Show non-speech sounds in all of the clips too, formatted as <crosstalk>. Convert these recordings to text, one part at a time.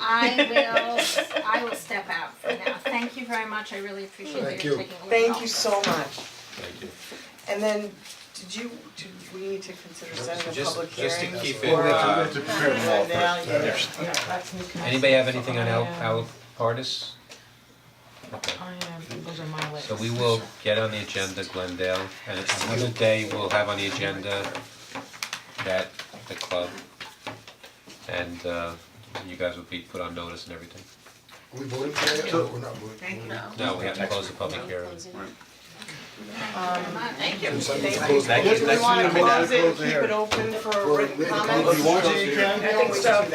I will, I will step out for now. Thank you very much, I really appreciate Thank you you. taking a look at all Thank you this. so much. Thank you. And then, did you, do we need to consider setting a Just, public hearing? just to keep it, for- uh, Right now, yeah, yeah, yeah, that's new council. anybody have anything on Al, I, um, Al Partis? Okay, I am, those are my legs. so we will get on the agenda Glendale, and another day we'll have on the agenda that, the club. And, uh, you guys will be put on notice and everything. We voting for that, or we're not voting? No, we have to close the public hearing. Thank you. Do we wanna may not close it, close the keep it hearing. open for For written written comments? comments. You want to, you I think so.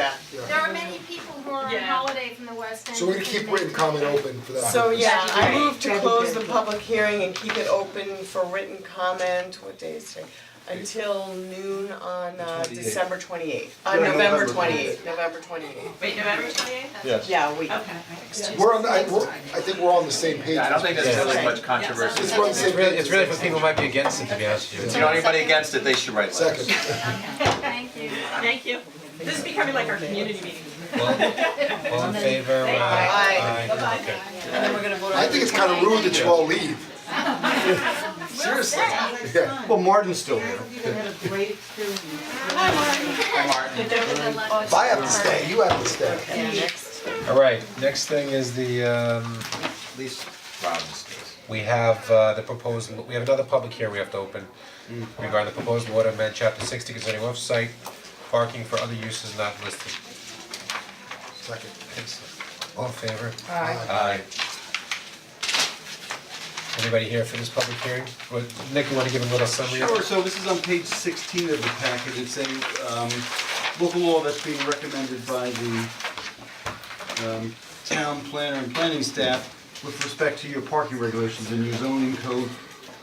There are many people who are on Yeah. holiday from the West End. So we're who gonna can keep make- written comment open for that. So yeah, I Right. move to close the public hearing and keep it open for written comment, what day is today? Until noon on uh December twenty eighth, uh Yeah, November November twenty eighth, November twenty eighth. Wait, November twenty eighth? Yes. Yeah, we, Okay. We're on, the- I, we're, I think we're all on the same page. Yeah, I don't think there's really much controversy. Just one It's second. really, it's really for people who might be against it, to be honest with If you. you know anybody against it, they should write letters. Second. Thank you. Thank you. This is becoming like our community meeting. All all in favor, aye, Aye. aye, okay. and then we're gonna vote on. I think it's kind of rude that you all leave. Seriously. Yeah. Well, Martin's still here. If I have to stay, you have to stay. Yeah, next. Alright, next thing is the um, At least Robin's case. we have uh the proposed, we have another public here we have to open regarding the proposed water amendment, chapter sixty concerning off-site parking for other uses not listed. Second. All in favor? Aye. Anybody here for this public hearing? Well, Nick, you wanna give a little summary? Sure, so this is on page sixteen of the packet, it's a um local law that's being recommended by the um town planner and planning staff with respect to your parking regulations and your zoning code.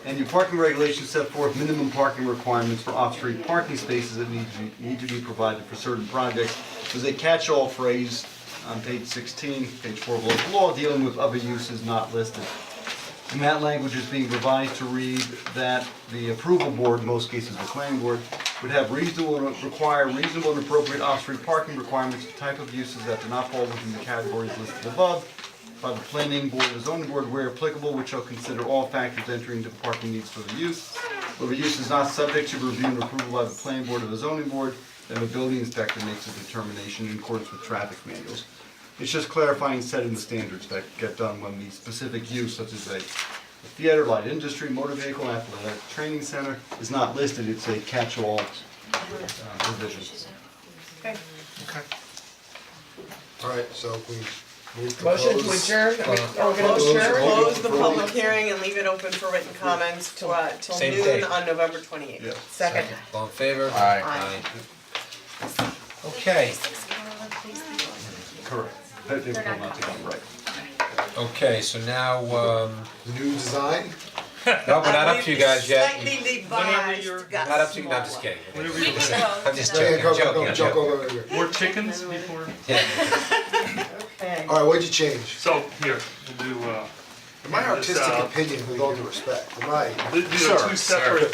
And your parking regulations set forth minimum parking requirements for off-street parking spaces that need to need to be provided for certain projects. There's a catch-all phrase on page sixteen, page four of local law, dealing with other uses not listed. And that language is being revised to read that the approval board, in most cases the planning board, would have reasonable, require reasonable and appropriate off-street parking requirements for type of uses that do not fall within the categories listed above by the planning board or zoning board where applicable, which shall consider all factors entering into the parking needs for the use. Where the use is not subject to review and approval by the planning board or the zoning board, then the building inspector makes a determination in accordance with traffic manuals. It's just clarifying, setting the standards that get done when the specific use, such as a theater, light industry, motor vehicle, athletic training center, is not listed, it's a catch-all uh, provision. Alright, so we move to close. Motion to adjourn, are we, are we gonna Close. adjourn? Close the public hearing and leave it open for written comments till uh till Same day. noon on November twenty eighth. Yeah. Second. All in favor? Aye. Aye. Okay, Correct. That they will not to come right. okay, so now um, New design? Uh, no, we're not up to you guys yet. Slightly revised, got Not up to you, no, I'm just smaller. kidding. We can I'm just Yeah, joking, go, go, joking, go, Joe, joking. go, go, go, go. More chickens before, Yeah. Okay. Alright, what'd you change? so here, we'll do uh, In my artistic This, uh, opinion, with all due respect, in my, these are two separate,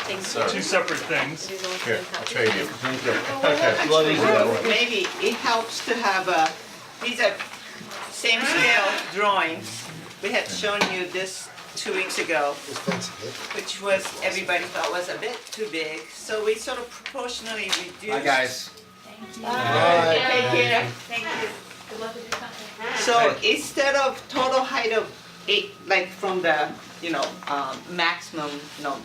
two separate things. Here, I'll trade you. Okay, blood easy that way. maybe it helps to have a, these are same scale drawings. We had shown you this two weeks ago, it's fancy, which was, everybody thought was a bit too big, so we sort of proportionally reduced. Hi, guys. Alright. Thank you, thank you. So instead of total height of eight, like from the, you know, um, maximum, no,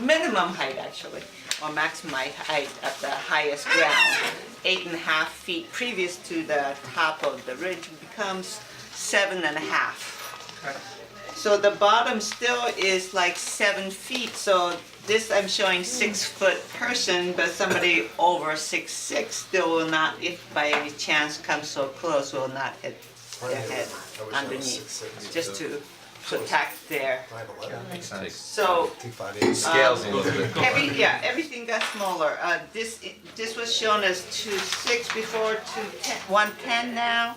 minimum height actually, or maximum hi- height at the highest ground, eight and a half feet previous to the top of the ridge becomes seven and a half. So the bottom still is like seven feet, so this I'm showing six foot person, but somebody over six six still will not, if by any chance comes so close, will not hit their head underneath, just to protect their, five eleven, Makes sense. so two five eight. Scales a little bit. every, yeah, everything got smaller. Uh, this, this was shown as two six before, two ten, one ten now.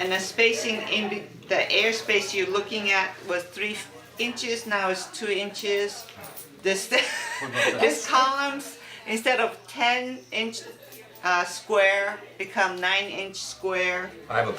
And the spacing in, be- the airspace you're looking at was three inches, now it's two inches. <laughs> This, this columns, instead of ten inch, uh, square become nine inch square. I have a